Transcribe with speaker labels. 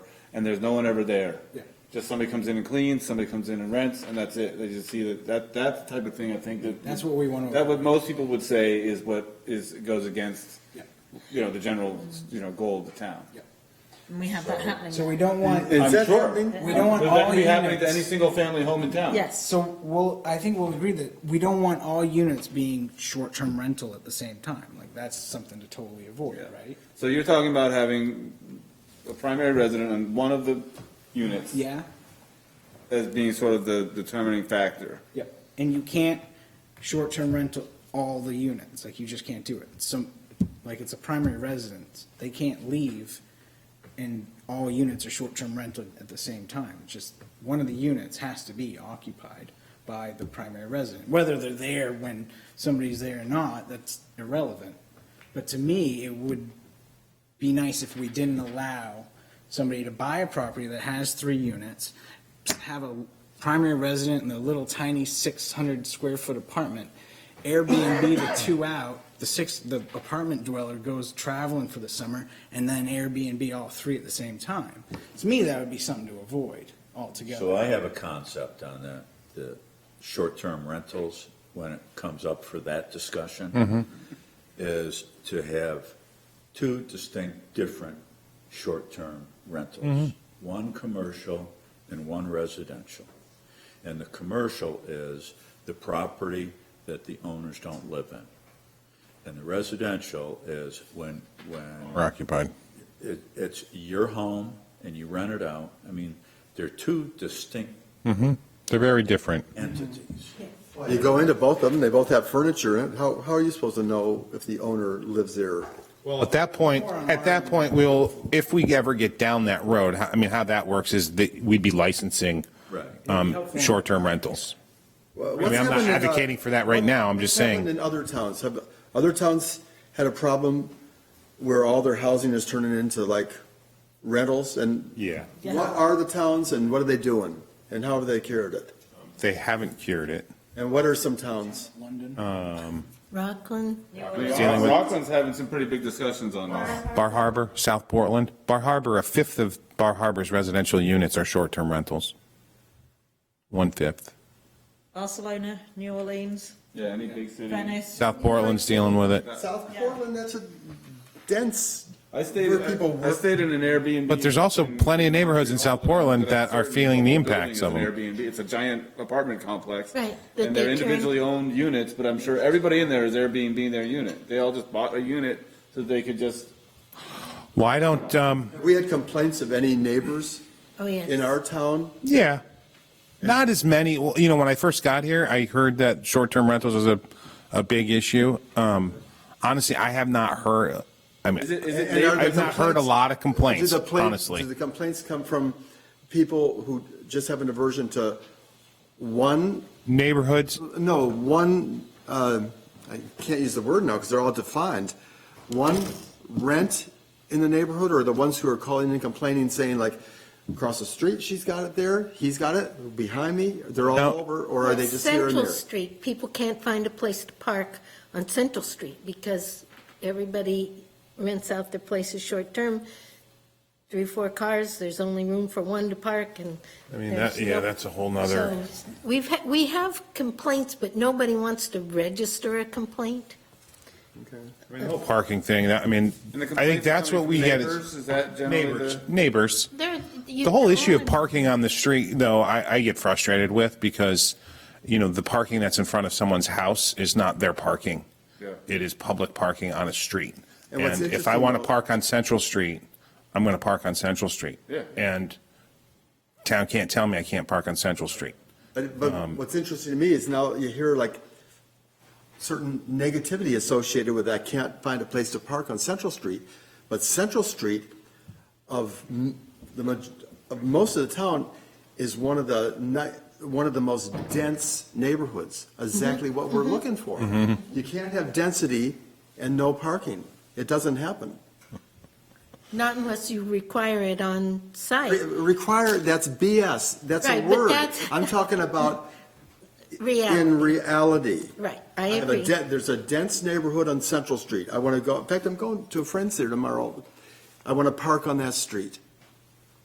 Speaker 1: and there's no one ever there.
Speaker 2: Yeah.
Speaker 1: Just somebody comes in and cleans, somebody comes in and rents, and that's it. They just see that, that, that's the type of thing I think that.
Speaker 2: That's what we wanna
Speaker 1: That what most people would say is what is, goes against,
Speaker 2: Yeah.
Speaker 1: you know, the general, you know, goal of the town.
Speaker 2: Yeah.
Speaker 3: And we have that happening.
Speaker 2: So we don't want,
Speaker 1: I'm
Speaker 4: Is that
Speaker 1: sure.
Speaker 4: something-
Speaker 2: We don't want
Speaker 1: Would that
Speaker 2: all
Speaker 1: be happening to
Speaker 2: units.
Speaker 1: any single family home in town?
Speaker 3: Yes.
Speaker 2: so we'll, I think we'll agree that we don't want all units being short-term rental at the same time. Like, that's something to totally avoid,
Speaker 1: Yeah.
Speaker 2: right?
Speaker 1: So you're talking about having a primary resident on one of the units
Speaker 2: Yeah?
Speaker 1: as being sort of the determining factor.
Speaker 2: Yep. And you can't short-term rental all the units, like you just can't do it. Some, like it's a primary residence, they can't leave and all units are short-term rented at the same time. It's Just one of the units has to be occupied by the primary resident. Whether they're there when somebody's there or not, that's irrelevant. But to me, it would be nice if we didn't allow somebody to buy a property that has three units, have a primary resident in the little tiny six hundred square foot apartment, Airbnb the two out, the six, the apartment dweller goes traveling for the summer, and then Airbnb all three at the same time. To me, that would be something to avoid
Speaker 4: So
Speaker 2: altogether.
Speaker 4: I have a concept on that, the short-term rentals, when it comes up for that discussion, is to have two distinct, different short-term rentals. One commercial and one residential. And the commercial is the property that the owners don't live in. And the residential is when, when
Speaker 5: We're occupied.
Speaker 4: it, it's your home and you rent it out. I mean, they're two distinct
Speaker 5: Mm-hmm. They're very different.
Speaker 4: entities.
Speaker 6: You go into both of them, they both have furniture in it. How, how are you supposed to know if the owner lives there?
Speaker 5: Well, at that point, at that point, we'll, if we ever get down that road, how- I mean, how that works is that we'd be licensing
Speaker 4: Right.
Speaker 5: um, short-term rentals.
Speaker 6: I
Speaker 5: mean, I'm not advocating for that right now. I'm just saying-
Speaker 6: uh, In other towns, have, other towns had a problem where all their housing is turning into like rentals and
Speaker 5: Yeah.
Speaker 6: what are the towns and what are they doing? And how have they cured it?
Speaker 5: They haven't cured it.
Speaker 6: And what are some towns?
Speaker 2: London.
Speaker 5: Um,
Speaker 3: Rockland.
Speaker 5: Dealing with-
Speaker 1: Rockland's having some pretty big discussions on this.
Speaker 5: Bar Harbor, South Portland, Bar Harbor, a fifth of Bar Harbor's residential units are short-term rentals. One-fifth.
Speaker 3: Barcelona, New Orleans,
Speaker 1: Yeah, any big
Speaker 6: Mm-hmm.
Speaker 1: city.
Speaker 3: Venice.
Speaker 5: South Portland's dealing with it.
Speaker 6: South Portland, that's a dense,
Speaker 1: I stayed,
Speaker 6: Where people
Speaker 1: I
Speaker 6: work.
Speaker 1: stayed in an Airbnb.
Speaker 5: But there's also plenty of neighborhoods in South Portland that are feeling the
Speaker 1: Building
Speaker 5: impacts
Speaker 1: is
Speaker 5: of
Speaker 1: an
Speaker 5: them.
Speaker 1: Airbnb, it's a giant apartment complex.
Speaker 3: Right, that
Speaker 1: And
Speaker 3: they
Speaker 1: they're
Speaker 3: turn-
Speaker 1: individually owned units, but I'm sure everybody in there is Airbnb their unit. They all just bought a unit so they could just,
Speaker 5: Why don't, um,
Speaker 6: we had complaints of any neighbors
Speaker 3: Oh, yes.
Speaker 6: in our town
Speaker 5: yeah, not as many, well, you know, when I first got here, I heard that short-term rentals was a, a big issue. Um, honestly, I have not heard, I mean,
Speaker 1: is it, is it
Speaker 6: And are the
Speaker 5: I've not heard a
Speaker 6: complaints-
Speaker 5: lot of complaints,
Speaker 6: Do the pla-
Speaker 5: honestly.
Speaker 6: Do the complaints come from people who just have an aversion to one,
Speaker 5: neighborhoods,
Speaker 6: no, one, uh, I can't use the word now because they're all defined, one rent in the neighborhood or the ones who are calling and complaining saying like, across the street, she's got it there, he's got it, behind me, they're all
Speaker 5: No.
Speaker 6: over, or are they just here and
Speaker 7: Central
Speaker 6: there?
Speaker 7: Street, people can't find a place to park on Central Street because everybody rents out their places short-term. Three, four cars, there's only room for one to park and.
Speaker 5: I mean,
Speaker 7: there's
Speaker 5: that, yeah,
Speaker 7: no-
Speaker 5: that's a whole nother.
Speaker 7: So We've, ha- we have complaints, but nobody wants to register a complaint.
Speaker 5: I mean, the whole parking thing, that, I mean,
Speaker 1: And the
Speaker 5: I think
Speaker 1: complaints
Speaker 5: that's
Speaker 1: coming
Speaker 5: what we
Speaker 1: from
Speaker 5: get
Speaker 1: neighbors,
Speaker 5: is.
Speaker 1: is that generally
Speaker 5: Neighbors,
Speaker 1: the-
Speaker 5: neighbors.
Speaker 7: There, you.
Speaker 5: The whole issue of
Speaker 7: can't-
Speaker 5: parking on the street, though, I, I get frustrated with because, you know, the parking that's in front of someone's house is not their parking.
Speaker 1: Yeah.
Speaker 5: It is public parking on a street.
Speaker 6: And what's
Speaker 5: And if I
Speaker 6: interesting
Speaker 5: want to
Speaker 6: about-
Speaker 5: park on Central Street, I'm going to park on Central Street.
Speaker 1: Yeah.
Speaker 5: And town can't tell me I can't park on Central Street.
Speaker 6: But, but what's interesting to me is now you hear like certain negativity associated with I can't find a place to park on Central Street. But Central Street of m- the, maj- of most of the town is one of the ni- one of the most dense neighborhoods, exactly
Speaker 7: Mm-hmm.
Speaker 6: what we're looking for. You can't have density and no parking. It doesn't happen.
Speaker 7: Not unless you require it on site.
Speaker 6: Re- Require, that's BS. That's a
Speaker 7: Right, but
Speaker 6: word.
Speaker 7: that's-
Speaker 6: I'm talking about
Speaker 7: Reality,
Speaker 6: in reality.
Speaker 7: right, I
Speaker 6: I have a
Speaker 7: agree.
Speaker 6: de- There's a dense neighborhood on Central Street. I want to go, in fact, I'm going to a friend's there tomorrow. I want to park on that street.